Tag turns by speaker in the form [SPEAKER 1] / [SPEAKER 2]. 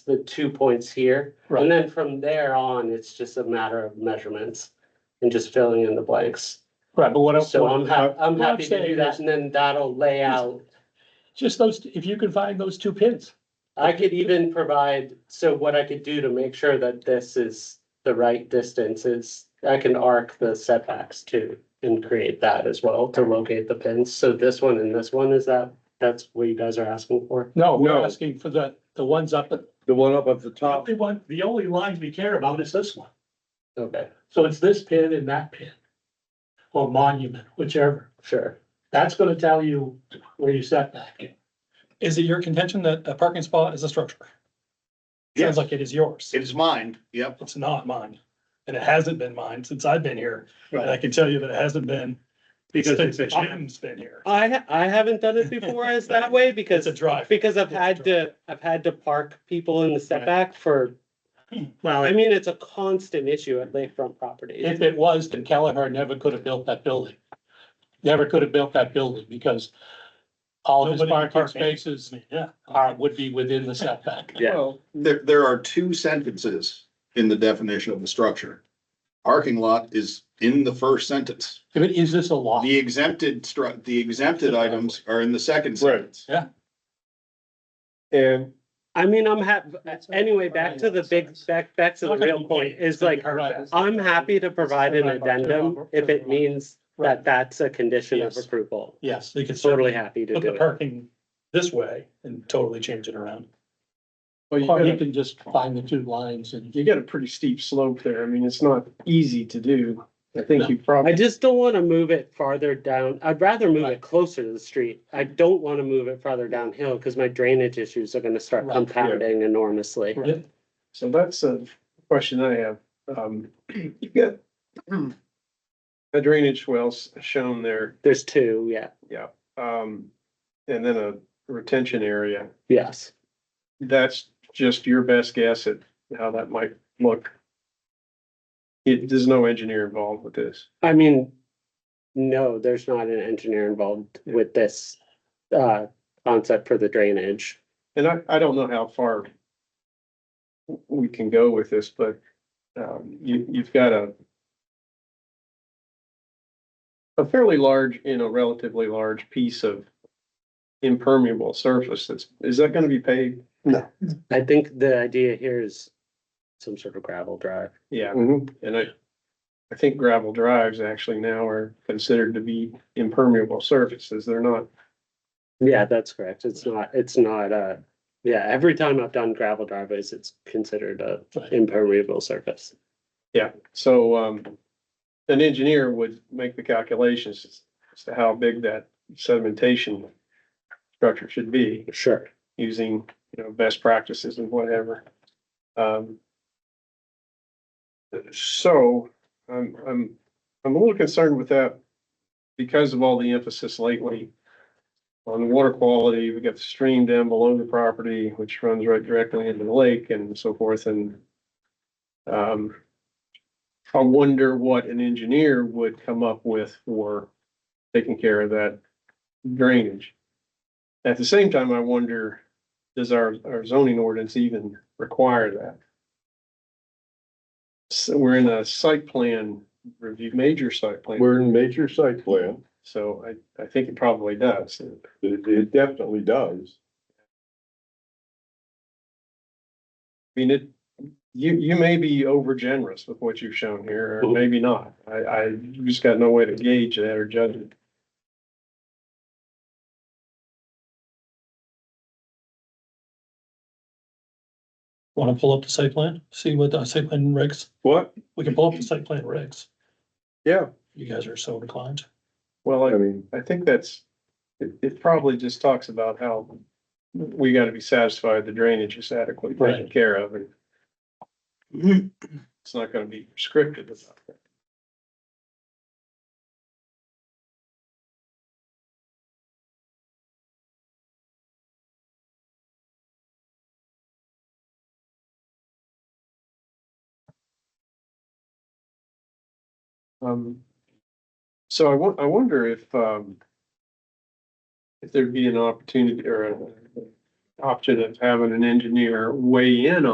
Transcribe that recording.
[SPEAKER 1] the two points here.
[SPEAKER 2] Right.
[SPEAKER 1] And then from there on, it's just a matter of measurements and just filling in the blanks.
[SPEAKER 2] Right, but what I'm,
[SPEAKER 1] So I'm hap- I'm
[SPEAKER 2] what I'm
[SPEAKER 1] happy to do
[SPEAKER 2] saying
[SPEAKER 1] that
[SPEAKER 2] is-
[SPEAKER 1] and then that'll lay out.
[SPEAKER 2] just those, if you can find those two pins.
[SPEAKER 1] I could even provide, so what I could do to make sure that this is the right distance is I can arc the setbacks too and create that as well to locate the pins. So this one and this one, is that, that's what you guys are asking for?
[SPEAKER 2] No, we're
[SPEAKER 3] No.
[SPEAKER 2] asking for the, the ones up at.
[SPEAKER 3] The one up at the
[SPEAKER 2] The
[SPEAKER 3] top,
[SPEAKER 2] only one, the only lines we care about is this one.
[SPEAKER 1] Okay,
[SPEAKER 2] So it's this pin and that pin. Or monument, whichever.
[SPEAKER 1] sure.
[SPEAKER 2] That's gonna tell you where you set back.
[SPEAKER 4] Is it your contention that a parking spot is a structure?
[SPEAKER 3] Yes.
[SPEAKER 4] Sounds like it is yours.
[SPEAKER 3] it is mine, yep.
[SPEAKER 4] It's not mine. And it hasn't been mine since I've been here. And I
[SPEAKER 3] Right.
[SPEAKER 4] can tell you that it hasn't been
[SPEAKER 3] Because
[SPEAKER 4] since
[SPEAKER 3] it's
[SPEAKER 4] Jim's been here.
[SPEAKER 1] I, ha- I haven't done it before as that way
[SPEAKER 4] It's
[SPEAKER 1] because,
[SPEAKER 4] a drive.
[SPEAKER 1] because I've had to, I've had to park people in the setback for,
[SPEAKER 2] Well,
[SPEAKER 1] I mean, it's a constant issue at lakefront properties.
[SPEAKER 2] If it was, then Kelleher never could have built that building. Never could have built that building because all of his
[SPEAKER 4] Nobody can
[SPEAKER 2] parking
[SPEAKER 4] park anywhere.
[SPEAKER 2] spaces
[SPEAKER 4] Yeah.
[SPEAKER 2] are, would be within the setback.
[SPEAKER 1] Yeah.
[SPEAKER 3] Well, There, there are two sentences in the definition of the structure. Parking lot is in the first sentence.
[SPEAKER 2] I mean, Is this a law?
[SPEAKER 3] The exempted stru, the exempted items are in the second sentence.
[SPEAKER 5] And
[SPEAKER 1] I mean, I'm hap, anyway, back to the big, back, back to the real point is like, uh, I'm happy to provide an addendum if it means that that's a condition of
[SPEAKER 2] Yes.
[SPEAKER 1] approval.
[SPEAKER 2] Yes,
[SPEAKER 4] You can
[SPEAKER 1] Totally
[SPEAKER 4] certainly
[SPEAKER 1] happy to
[SPEAKER 4] put the
[SPEAKER 1] do it.
[SPEAKER 4] parking this way and totally change it around.
[SPEAKER 5] well, you
[SPEAKER 2] or you
[SPEAKER 5] got,
[SPEAKER 2] can just find the two lines and
[SPEAKER 5] you got a pretty steep slope there. I mean, it's not easy to do. I think you
[SPEAKER 1] I
[SPEAKER 5] probably,
[SPEAKER 1] just don't want to move it farther down. I'd rather move it
[SPEAKER 2] Right.
[SPEAKER 1] closer to the street. I don't want to move it farther downhill because my drainage issues are gonna start
[SPEAKER 2] Right, yeah.
[SPEAKER 1] compounding enormously.
[SPEAKER 2] Right.
[SPEAKER 5] so that's a question I have. Um, you got a drainage wells shown there,
[SPEAKER 1] There's two, yeah,
[SPEAKER 5] um, and then a retention area.
[SPEAKER 1] yes.
[SPEAKER 5] That's just your best guess at how that might look. It, there's no engineer involved with this.
[SPEAKER 1] I mean, no, there's not an engineer involved
[SPEAKER 5] Yeah.
[SPEAKER 1] with this uh concept for the drainage.
[SPEAKER 5] And I, I don't know how far we can go with this, but, um, you, you've got a a fairly large, you know, relatively large piece of impermeable surface that's, is that gonna be paved?
[SPEAKER 1] I think the idea here is some sort of gravel drive.
[SPEAKER 5] Yeah, and I, I think gravel drives actually now are considered to be impermeable surfaces. They're not,
[SPEAKER 1] Yeah, that's correct. It's not, it's not, uh, yeah, every time I've done gravel driveways, it's considered a
[SPEAKER 2] Right.
[SPEAKER 1] impermeable surface.
[SPEAKER 5] so, um, an engineer would make the calculations as- as to how big that sedimentation structure should be.
[SPEAKER 1] Sure.
[SPEAKER 5] using, you know, best practices and whatever. Um. So, I'm, I'm, I'm a little concerned with that because of all the emphasis lately on water quality. We got the stream down below the property, which runs right directly into the lake and so forth and um, I wonder what an engineer would come up with for taking care of that drainage. At the same time, I wonder, does our, our zoning ordinance even require that? So we're in a site plan review, major site plan,
[SPEAKER 6] We're in major site plan,
[SPEAKER 5] so I, I think it probably does.
[SPEAKER 6] it, it definitely does.
[SPEAKER 5] I mean, it, you, you may be over generous with what you've shown here, or maybe not. I, I you just got no way to gauge that or judge it.
[SPEAKER 4] Want to pull up the site plan? See what the site plan regs,
[SPEAKER 6] What?
[SPEAKER 4] we can pull up the site plan regs.
[SPEAKER 5] Yeah,
[SPEAKER 4] You guys are so inclined.
[SPEAKER 5] well,
[SPEAKER 6] I
[SPEAKER 5] I,
[SPEAKER 6] mean,
[SPEAKER 5] I think that's, it, it probably just talks about how we gotta be satisfied the drainage is adequately taken
[SPEAKER 2] Right.
[SPEAKER 5] care of and it's not gonna be prescriptive about that. Um, so I won- I wonder if, um, if there'd be an opportunity or a- option of having an engineer weigh in